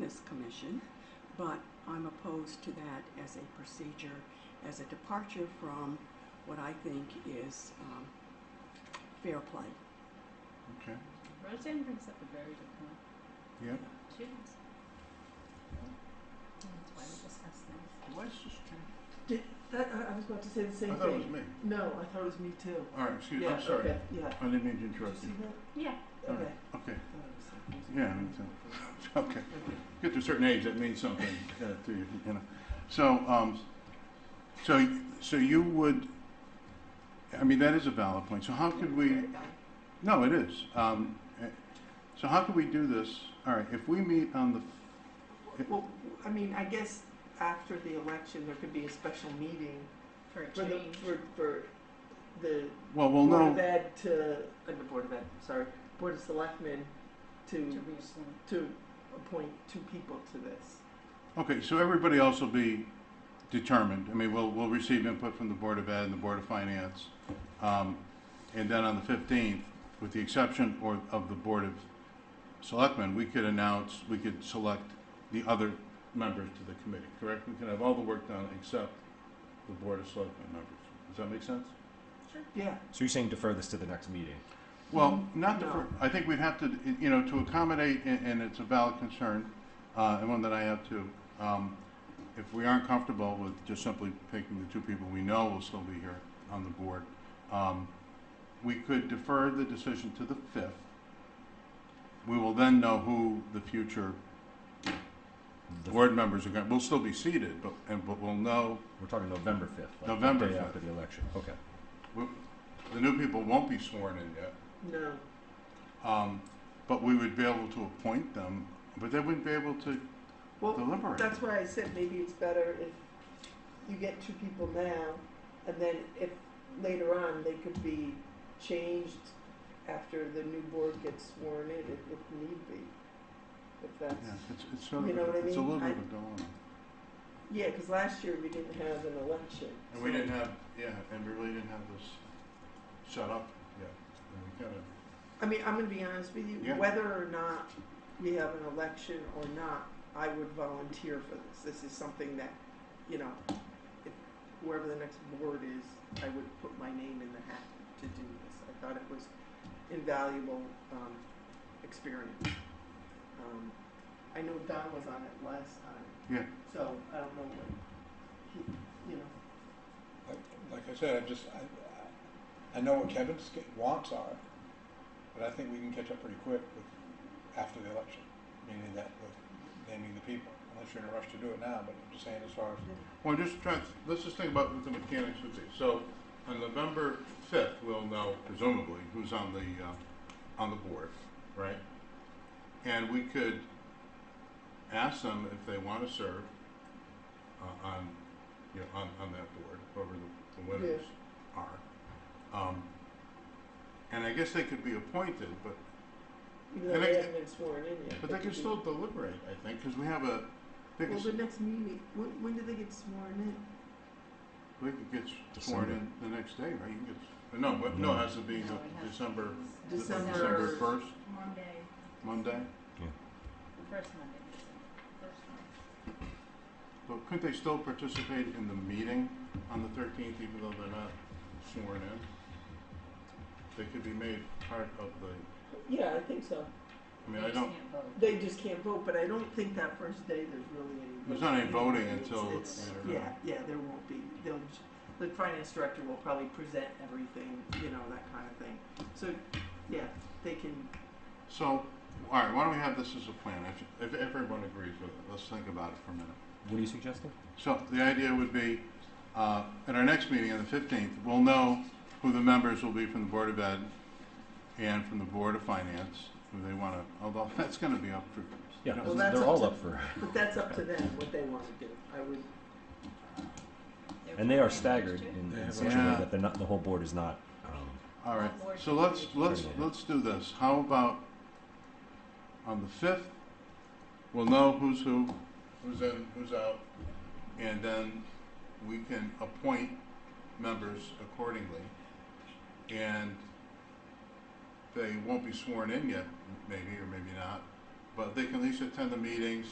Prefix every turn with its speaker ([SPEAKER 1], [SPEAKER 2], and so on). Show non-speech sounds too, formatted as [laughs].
[SPEAKER 1] this commission, but I'm opposed to that as a procedure, as a departure from what I think is um, fair play.
[SPEAKER 2] Okay,
[SPEAKER 3] Roseanne brings up a very good point.
[SPEAKER 2] yep.
[SPEAKER 3] She does. And That's why we discuss things.
[SPEAKER 2] Why is this change?
[SPEAKER 4] Did, that, I, I was about to say the same
[SPEAKER 2] I
[SPEAKER 4] thing.
[SPEAKER 2] thought it was me.
[SPEAKER 4] No, I thought it was me too.
[SPEAKER 2] All right, excuse me,
[SPEAKER 4] yeah,
[SPEAKER 2] I'm sorry.
[SPEAKER 4] Okay, yeah.
[SPEAKER 2] I didn't mean to
[SPEAKER 4] Did you
[SPEAKER 2] interrupt
[SPEAKER 4] see
[SPEAKER 2] you.
[SPEAKER 4] that?
[SPEAKER 3] Yeah.
[SPEAKER 2] All
[SPEAKER 4] Okay.
[SPEAKER 2] right, Okay,
[SPEAKER 4] I thought it was the same.
[SPEAKER 2] Yeah, me okay. [laughs] Get to a certain age, that means something uh, to you, you know. So, um, so, so you would, I mean, that is a valid point. So how could we, no, it is. Um, eh, So how could we do this? All right, if we meet on the,
[SPEAKER 4] [laughs] Well, I mean, I guess after the election, there could be a special meeting
[SPEAKER 3] For a
[SPEAKER 4] for the,
[SPEAKER 3] change.
[SPEAKER 4] for, for the
[SPEAKER 2] well, we'll
[SPEAKER 4] Board
[SPEAKER 2] know.
[SPEAKER 4] of Ed to, uh, the Board of Ed, sorry, Board of Selectmen
[SPEAKER 3] To
[SPEAKER 4] to,
[SPEAKER 3] reappoint.
[SPEAKER 4] to appoint two people to this.
[SPEAKER 2] Okay, so everybody else will be determined. I mean, we'll, we'll receive input from the Board of Ed and the Board of Finance. Um, and then on the fifteenth, with the exception or of the Board of Selectmen, we could announce, we could select the other members to the committee, correct? We can have all the work done except the Board of Selectmen members. Does that make sense?
[SPEAKER 4] Yeah,
[SPEAKER 5] So you're saying defer this to the next meeting?
[SPEAKER 2] Well, not the,
[SPEAKER 4] No.
[SPEAKER 2] fir- I think we'd have to, you know, to accommodate, and, and it's a valid concern, uh, and one that I have too. Um, if we aren't comfortable with just simply picking the two people we know will still be here on the board, um, we could defer the decision to the fifth. We will then know who the future
[SPEAKER 5] The-
[SPEAKER 2] board members are going, we'll still be seated, but, and, but we'll know,
[SPEAKER 5] We're talking November 5th. like the
[SPEAKER 2] November
[SPEAKER 5] day
[SPEAKER 2] 5th.
[SPEAKER 5] After the election, okay.
[SPEAKER 2] we- the new people won't be sworn in yet.
[SPEAKER 4] no,
[SPEAKER 2] Um, but we would be able to appoint them, but they wouldn't be able to
[SPEAKER 4] well,
[SPEAKER 2] deliberate.
[SPEAKER 4] that's why I said maybe it's better if you get two people now, and then if later on they could be changed after the new board gets sworn in, if, if need be. If that's,
[SPEAKER 2] Yeah, it's, it's sort of,
[SPEAKER 4] You know
[SPEAKER 2] a-
[SPEAKER 4] what I
[SPEAKER 2] it's a
[SPEAKER 4] mean?
[SPEAKER 2] little bit of a
[SPEAKER 4] I-
[SPEAKER 2] dilemma.
[SPEAKER 4] yeah, because last year we didn't have an election.
[SPEAKER 2] And we
[SPEAKER 4] so-
[SPEAKER 2] didn't have, yeah, and we really didn't have this set up yet. And we kinda,
[SPEAKER 4] I mean, I'm going to be honest with you.
[SPEAKER 2] Yeah.
[SPEAKER 4] Whether or not we have an election or not, I would volunteer for this. This is something that, you know, if whoever the next board is, I would put my name in the hat to do this. I thought it was invaluable um, experience. Um, I know Don was on it last time.
[SPEAKER 2] Yeah.
[SPEAKER 4] So I don't know what he, you know.
[SPEAKER 6] Like, like I said, I just, I, I know what Kevin's get- wants are, but I think we can catch up pretty quick with, after the election, meaning that, with naming the people, unless you're in a rush to do it now, but I'm just saying as far as,
[SPEAKER 2] Well, just try, let's just think about what the mechanics would be. So on November fifth, we'll know presumably who's on the, uh, on the board, right? And we could ask them if they want to serve uh, on, you know, on, on that board, whoever the, the winners are. Um, and I guess they could be appointed, but,
[SPEAKER 4] Even though
[SPEAKER 2] And
[SPEAKER 4] they
[SPEAKER 2] I-
[SPEAKER 4] haven't been sworn in yet.
[SPEAKER 2] but they
[SPEAKER 4] could
[SPEAKER 2] can
[SPEAKER 4] be-
[SPEAKER 2] still deliberate, I think, because we have a, I think
[SPEAKER 4] Well,
[SPEAKER 2] it's-
[SPEAKER 4] the next meeting, when, when do they get sworn in?
[SPEAKER 2] we could get sworn in the next day, right? You can get, no, but, no, it has to be
[SPEAKER 3] No,
[SPEAKER 2] the
[SPEAKER 3] it has to
[SPEAKER 2] December, the-
[SPEAKER 3] be
[SPEAKER 4] December-
[SPEAKER 2] December first,
[SPEAKER 3] Monday.
[SPEAKER 2] Monday.
[SPEAKER 3] First Monday. in December. First Monday.
[SPEAKER 2] But couldn't they still participate in the meeting on the thirteenth, even though they're not sworn in? They could be made part of the,
[SPEAKER 4] Yeah, I think so.
[SPEAKER 2] I mean,
[SPEAKER 3] They
[SPEAKER 2] I
[SPEAKER 3] just
[SPEAKER 2] don't,
[SPEAKER 3] can't vote.
[SPEAKER 4] They just can't vote, but I don't think that first day there's really any.
[SPEAKER 2] There's not any voting
[SPEAKER 4] It's-
[SPEAKER 2] until
[SPEAKER 4] it's-
[SPEAKER 2] later
[SPEAKER 4] Yeah,
[SPEAKER 2] on.
[SPEAKER 4] yeah, there won't be. They'll, j- the finance director will probably present everything, you know, that kind of thing. So, yeah, they can,
[SPEAKER 2] so, all right, why don't we have this as a plan? If, if everyone agrees with it, let's think about it for a minute.
[SPEAKER 5] What are you suggesting?
[SPEAKER 2] So the idea would be, uh, at our next meeting on the fifteenth, we'll know who the members will be from the Board of Ed and from the Board of Finance, who they wanna, although [laughs] that's gonna be up for.
[SPEAKER 5] Yeah,
[SPEAKER 4] Well,
[SPEAKER 5] because
[SPEAKER 4] that's
[SPEAKER 5] they're
[SPEAKER 4] up
[SPEAKER 5] all
[SPEAKER 4] to-
[SPEAKER 5] up for,
[SPEAKER 4] but that's up to them, what they want to do. I would,
[SPEAKER 3] They're
[SPEAKER 5] and they are
[SPEAKER 3] voting
[SPEAKER 5] staggered
[SPEAKER 3] too.
[SPEAKER 5] in,
[SPEAKER 6] They
[SPEAKER 5] in
[SPEAKER 6] have
[SPEAKER 5] such a way
[SPEAKER 2] Yeah.
[SPEAKER 5] that they're not, the whole board is not, um,
[SPEAKER 2] All right, so let's, let's, let's do this. How about on the fifth, we'll know who's who, who's in, who's out, and then we can appoint members accordingly. And they won't be sworn in yet, maybe, or maybe not, but they can at least attend the meetings,